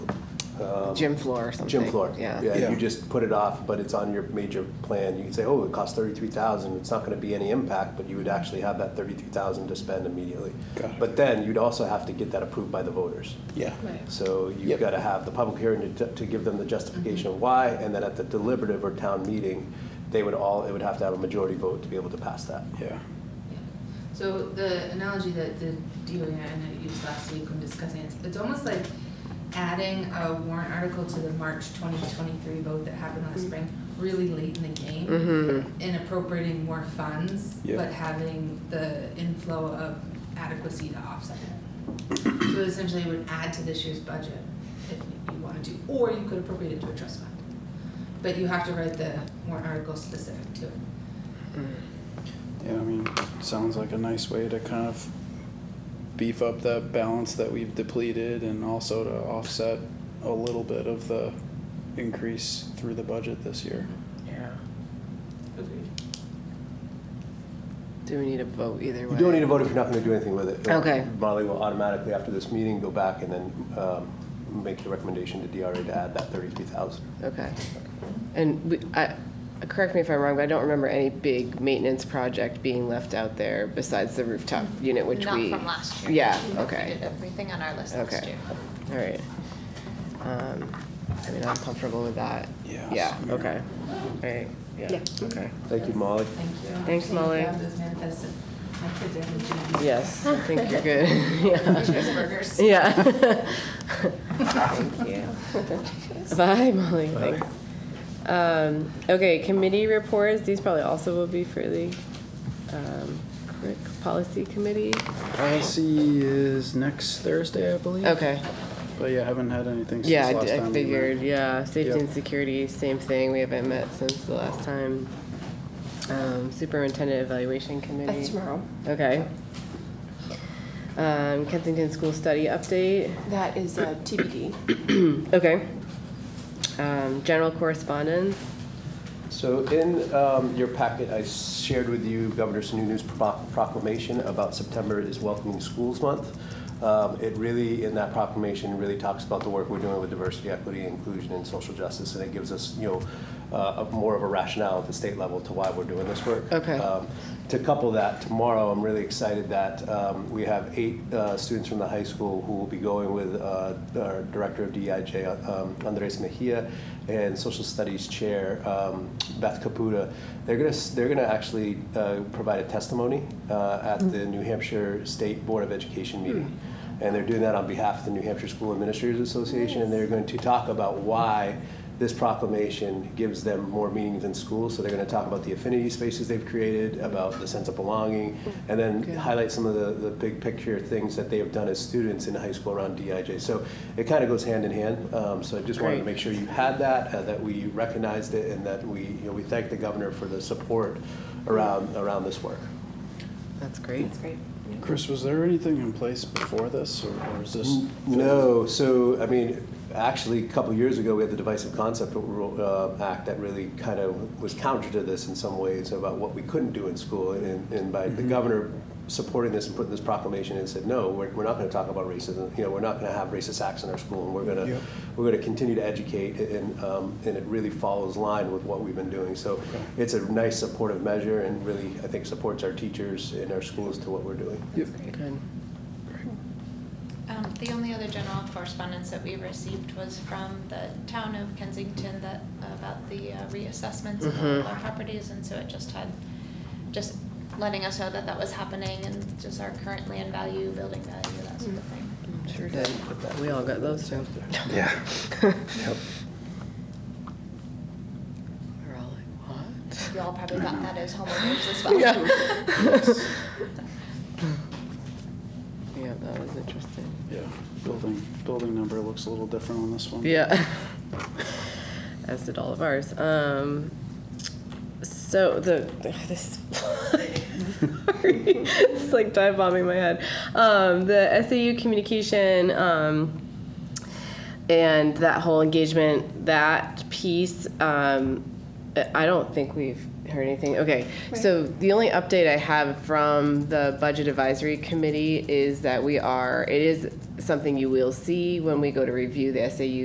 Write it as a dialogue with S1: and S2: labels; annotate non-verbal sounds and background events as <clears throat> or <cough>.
S1: um,
S2: Gym floor or something.
S1: Gym floor.
S2: Yeah.
S1: Yeah,
S3: Yeah.
S1: you just put it off, but it's on your major plan. You can say, oh, it costs thirty-three thousand, it's not gonna be any impact, but you would actually have that thirty-three thousand to spend immediately.
S3: Got it.
S1: But then you'd also have to get that approved by the voters.
S3: Yeah.
S1: So you've
S3: Yep.
S1: got to have the public hearing to, to give them the justification of why, and then at the deliberative or town meeting, they would all, it would have to have a majority vote to be able to pass that.
S3: Yeah.
S4: Yeah. So the analogy that the DOE and I used last week when discussing it, it's almost like adding a warrant article to the March twenty twenty-three vote that happened last spring, really late in the game. And appropriating more funds,
S3: Yeah.
S4: but having the inflow of adequacy to offset it. So essentially it would add to this year's budget if you wanted to, or you could appropriate it to a trust fund. But you have to write the warrant article specific to it.
S3: Yeah, I mean, sounds like a nice way to kind of beef up that balance that we've depleted and also to offset a little bit of the increase through the budget this year.
S2: Yeah.
S4: Agreed.
S2: Do we need a vote either way?
S1: You don't need to vote if you're not going to do anything with it.
S2: Okay.
S1: Molly will automatically, after this meeting, go back and then um, make the recommendation to DRA to add that thirty-three thousand.
S2: Okay. And we, I, correct me if I'm wrong, but I don't remember any big maintenance project being left out there besides the rooftop unit, which
S5: Not
S2: we.
S5: from last year.
S2: Yeah,
S5: We
S2: okay.
S5: did everything on our list last
S2: Okay.
S5: year.
S2: All right. Um, I mean, I'm comfortable with that.
S3: Yeah,
S2: Yeah,
S3: same here.
S2: okay. All right, yeah, okay.
S1: Thank you, Molly.
S4: Thank you.
S2: Thanks,
S4: Thank you.
S2: Molly.
S4: Have those manifests. My kids are in the gym.
S2: Yes, I think you're good. <laughs>
S5: <laughs>
S2: Yeah.
S4: Cheeseburgers.
S2: Yeah. <laughs> Thank you. Bye, Molly, thanks. Um, okay, committee reports, these probably also will be for the, um, quick policy committee.
S3: Policy is next Thursday, I believe.
S2: Okay,
S3: But yeah, I haven't had anything since
S2: yeah, I
S3: last
S2: d-
S3: time.
S2: I
S3: we met.
S2: figured, yeah, safety and
S3: Yep.
S2: security, same thing, we haven't met since the last time. Um, superintendent evaluation committee.
S6: That's tomorrow.
S2: Okay. Um, Kensington School Study Update,
S6: That is uh, TBD.
S2: <clears throat> okay. Um, general correspondence,
S1: So in um, your packet, I shared with you Governor Sununu's pro- proclamation about September is Welcoming Schools Month. Um, It really, in that proclamation, really talks about the work we're doing with diversity, equity, inclusion, and social justice, and it gives us, you know, uh, a- more of a rationale at the state level to why we're doing this work.
S2: Okay.
S1: Um, To couple that, tomorrow, I'm really excited that um, we have eight uh, students from the high school who will be going with uh, our Director of DEIJ, um, Andres Mejia, and Social Studies Chair um, Beth Caputa. They're going to, they're going to actually uh, provide a testimony uh, at the New Hampshire State Board of Education meeting. And they're doing that on behalf of the New Hampshire School Administrators Association, and they're going to talk about why this proclamation gives them more meaning than school. So they're going to talk about the affinity spaces they've created, about the sense of belonging, and then highlight some of the, the big picture things that they have done as students in high school around DIJ. So it kind of goes hand in hand. Um, so I just wanted to
S2: Great.
S1: make sure you had that, uh, that we recognized it, and that we, you know, we thank the governor for the support around, around this work.
S2: that's great.
S3: Chris, was there anything in place before this, or, or is this?
S1: No, so, I mean, actually, a couple years ago, we had the Divisive Concept Ru- uh, Act that really kind of was counter to this in some ways about what we couldn't do in school. And and by the governor supporting this and putting this proclamation in, said, no, we're we're not going to talk about racism, you know, we're not going to have racist acts in our school, and we're going
S3: Yep.
S1: to, we're going to continue to educate, and, um, and it really follows line with what we've been doing. So it's a nice supportive measure and really, I think, supports our teachers and our schools to what we're doing.
S2: Good.
S5: Um, the only other general correspondence that we received was from the town of Kensington that, about the uh, reassessments of
S2: Mm-hmm.
S5: all of our properties, and so it just had, just letting us know that that was happening, and just our current land value, building value, that sort of thing.
S2: Sure did. We all got those too. <laughs>
S1: Yeah.
S2: We're all like, what?
S5: You all probably got that as
S2: <laughs>
S5: homeowners as well. <laughs>
S2: Yeah. <laughs> Yeah, that was interesting.
S3: Yeah, building, building number looks a little different on this one.
S2: Yeah. <laughs> As did all of ours. Um, so the <laughs> this sorry, <laughs> it's like dive bombing my head. Um, the SAU communication um, and that whole engagement, that piece. Um, I don't think we've heard anything. Okay, so the only update I have from the Budget Advisory Committee is that we are. It is something you will see when we go to review the SAU